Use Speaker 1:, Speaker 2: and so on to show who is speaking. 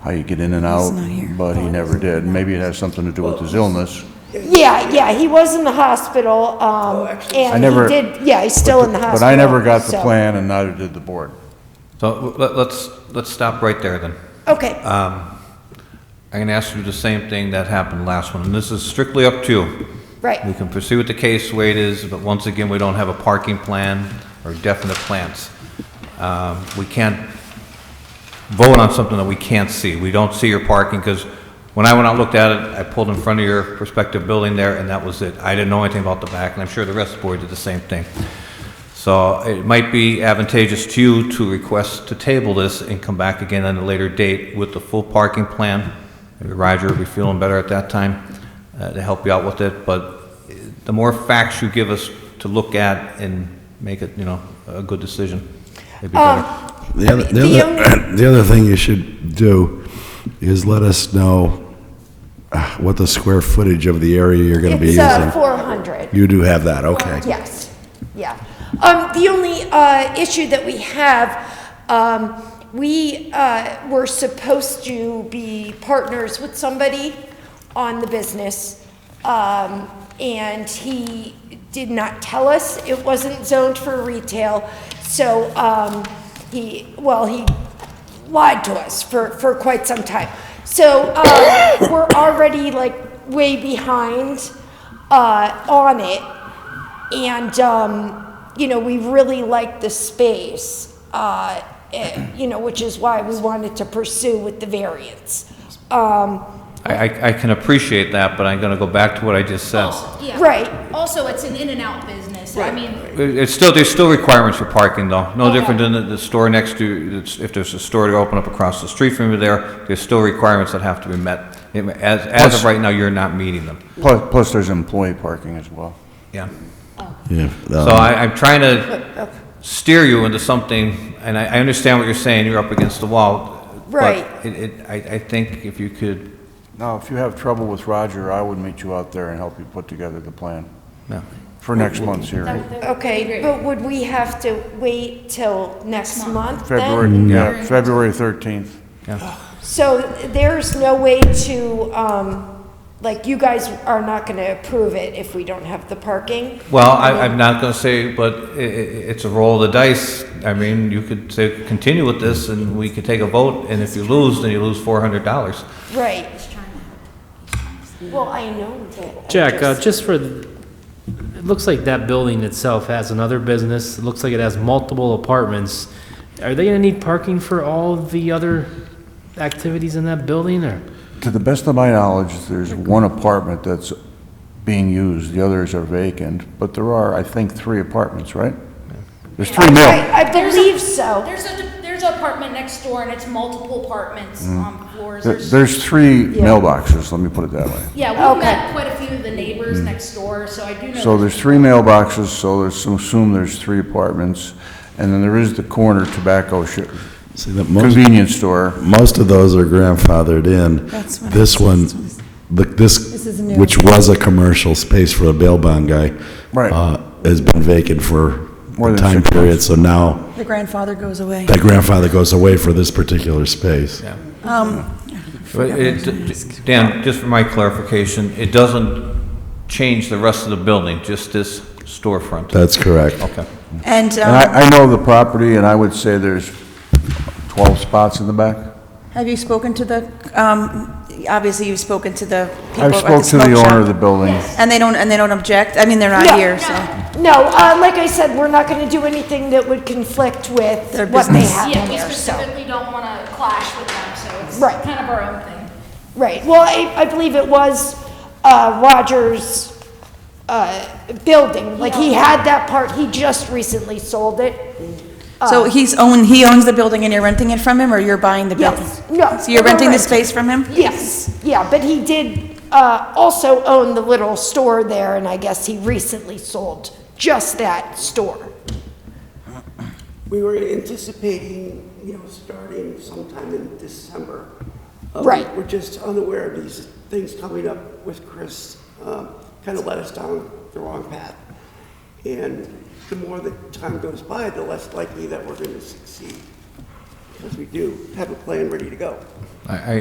Speaker 1: how you get in and out,
Speaker 2: not here.
Speaker 1: but
Speaker 3: Oh,
Speaker 1: he never did. Maybe it has something to do with his illness.
Speaker 3: Yeah, yeah, he was in the hospital, um,
Speaker 1: I
Speaker 3: and
Speaker 1: never-
Speaker 3: he did, yeah, he's still in the hospital.
Speaker 1: But I never got the
Speaker 3: so-
Speaker 1: plan and neither did the board.
Speaker 4: So let- let's, let's stop right there then.
Speaker 3: Okay,
Speaker 4: I'm going to ask you the same thing that happened last one, and this is strictly up to you. We
Speaker 3: right,
Speaker 4: can pursue with the case the way it is, but once again, we don't have a parking plan or definite plans. Um, We can't vote on something that we can't see. We don't see your parking, because when I went out and looked at it, I pulled in front of your prospective building there, and that was it. I didn't know anything about the back, and I'm sure the rest of the board did the same thing. So it might be advantageous to you to request to table this and come back again at a later date with the full parking plan. Maybe Roger will be feeling better at that time uh, to help you out with it, but uh, the more facts you give us to look at and make it, you know, a good decision, it'd be better.
Speaker 5: The other, the,
Speaker 3: The
Speaker 5: other, the other thing you should do is let us know uh, what the square footage of the area you're going to be
Speaker 3: it's, uh,
Speaker 5: using.
Speaker 3: four hundred.
Speaker 5: You do have that, okay.
Speaker 3: Yes, yeah. Um, the only, uh, issue that we have, um, we, uh, were supposed to be partners with somebody on the business. Um, and he did not tell us. It wasn't zoned for retail. So, um, he, well, he lied to us for, for quite some time. So, uh, we're already like way behind, uh, on it. And, um, you know, we really liked the space, uh, eh, you know, which is why we wanted to pursue with the variance. Um,
Speaker 4: I, I- I can appreciate that, but I'm going to go back to what I just said.
Speaker 6: Also, yeah.
Speaker 3: Right.
Speaker 6: Also, it's an in and out business. I mean,
Speaker 4: It- It's still, there's still requirements for parking, though. No different than the- the store next to, it's- if there's a store to open up across the street from you there, there's still requirements that have to be met. It- As, as of
Speaker 1: Plus-
Speaker 4: right now, you're not meeting them.
Speaker 1: Plus, plus there's employee parking as well.
Speaker 4: Yeah.
Speaker 5: Yeah,
Speaker 4: So
Speaker 5: uh,
Speaker 4: I, I'm trying to steer you into something, and I, I understand what you're saying, you're up against the wall. but
Speaker 3: Right.
Speaker 4: It, it, I, I think if you could,
Speaker 1: Now, if you have trouble with Roger, I would meet you out there and help you put together the plan
Speaker 4: no.
Speaker 1: for next month's hearing.
Speaker 3: okay, but would we have to wait till next month
Speaker 1: February,
Speaker 3: then?
Speaker 1: yeah, February 13th.
Speaker 3: So there's no way to, um, like, you guys are not gonna approve it if we don't have the parking?
Speaker 4: Well, I, I'm not gonna say, but i- i- it's a roll of the dice. I mean, you could say, continue with this, and we could take a vote, and if you lose, then you lose four hundred dollars.
Speaker 3: Right. Well, I know that. I
Speaker 7: Jack, uh,
Speaker 3: just-
Speaker 7: just for, the- it looks like that building itself has another business. It looks like it has multiple apartments. Are they gonna need parking for all the other activities in that building, or?
Speaker 1: To the best of my knowledge, there's one apartment that's being used, the others are vacant, but there are, I think, three apartments, right? There's three mil.
Speaker 3: I I believe so.
Speaker 6: there's a, there's an apartment next door and it's multiple apartments on floors.
Speaker 1: Mm. There-
Speaker 6: There's-
Speaker 1: There's three mailboxes, let me put it that way.
Speaker 6: Yeah,
Speaker 3: Okay.
Speaker 6: we've met quite a few of the neighbors next door, so I do know.
Speaker 1: Mm. So there's three mailboxes, so there's, assume there's three apartments, and then there is the corner tobacco sh-
Speaker 5: see that most,
Speaker 1: convenience store.
Speaker 5: most of those are grandfathered in.
Speaker 2: That's what I
Speaker 5: This
Speaker 2: was-
Speaker 5: one, the- this, which was a commercial space for a bail bond guy.
Speaker 1: Right.
Speaker 5: uh, Has been vacant for
Speaker 1: More
Speaker 5: a
Speaker 1: than
Speaker 5: time
Speaker 1: six
Speaker 5: period,
Speaker 1: months.
Speaker 5: so now
Speaker 2: The grandfather goes away.
Speaker 5: that grandfather goes away for this particular space.
Speaker 4: But it, Dan, just for my clarification, it doesn't change the rest of the building, just this storefront.
Speaker 5: That's correct.
Speaker 4: Okay.
Speaker 2: And,
Speaker 1: And
Speaker 2: um,
Speaker 1: I, I know the property, and I would say there's 12 spots in the back.
Speaker 2: have you spoken to the, um, obviously you've spoken to the people at
Speaker 1: I've
Speaker 2: the
Speaker 1: spoke to the
Speaker 2: smoke
Speaker 1: owner of the
Speaker 2: shop.
Speaker 1: building.
Speaker 2: And they don't, and they don't object? I mean, they're
Speaker 3: No,
Speaker 2: not here, so.
Speaker 3: No, uh, like I said, we're not gonna do anything that would conflict with
Speaker 2: Their
Speaker 3: what they
Speaker 2: business.
Speaker 3: have in
Speaker 6: Yeah, we
Speaker 3: there, so.
Speaker 6: specifically don't want to clash with them, so it's
Speaker 3: Right.
Speaker 6: kind of our own thing.
Speaker 3: Right, well, I, I believe it was, uh, Rogers, uh, building, like, he had that part, he just recently sold it. Uh,
Speaker 2: So he's own, he owns the building and you're renting it from him, or you're buying the building?
Speaker 3: Yes, no.
Speaker 2: So you're
Speaker 3: we're
Speaker 2: renting the
Speaker 3: renting.
Speaker 2: space from him?
Speaker 3: Yes, yeah, but he did, uh, also own the little store there, and I guess he recently sold just that store.
Speaker 8: We were anticipating, you know, starting sometime in December. Um,
Speaker 3: Right.
Speaker 8: We're just unaware of these things coming up with Chris, um, kind of led us down the wrong path. And the more the time goes by, the less likely that we're going to succeed, because we do have a plan ready to go.
Speaker 1: I, I,